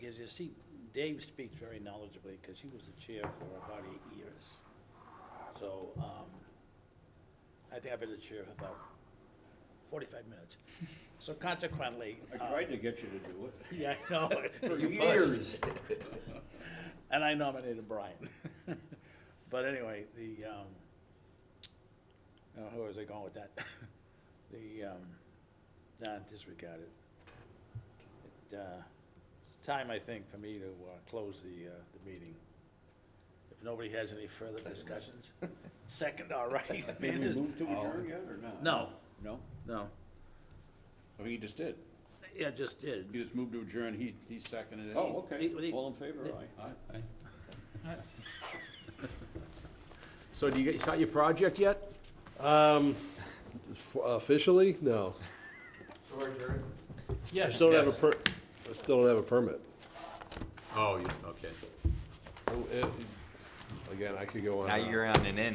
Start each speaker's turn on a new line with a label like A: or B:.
A: is he, Dave speaks very knowledgeably, because he was the chair for about eight years. So, um, I think I've been the chair for about forty-five minutes. So consequently.
B: I
A: um,
B: tried to get you to do it.
A: Yeah, I know.
B: For
A: You
B: years.
A: And I nominated Brian. But anyway, the, um, uh, where was I going with that? The, um, nah, disregard it. It, uh, it's time, I think, for me to, uh, close the, uh, the meeting. If nobody has any further discussions. Second, all right.
B: Did
A: Man,
B: we
A: this-
B: move to adjourn yet or not?
A: No,
B: No?
A: no.
C: I think you just did.
A: Yeah, just did.
C: You just moved to adjourn, he, he seconded it.
B: Oh, okay.
A: He- he-
B: All in favor, aye. Aye.
C: So do you, you your project yet?
D: Um, f- officially, no. I
C: Yes.
D: still don't have a per, I still don't have a permit.
C: Oh, you, okay.
D: Oh, it- Again, I could go on.
E: Now
D: and on.
E: you're on an end.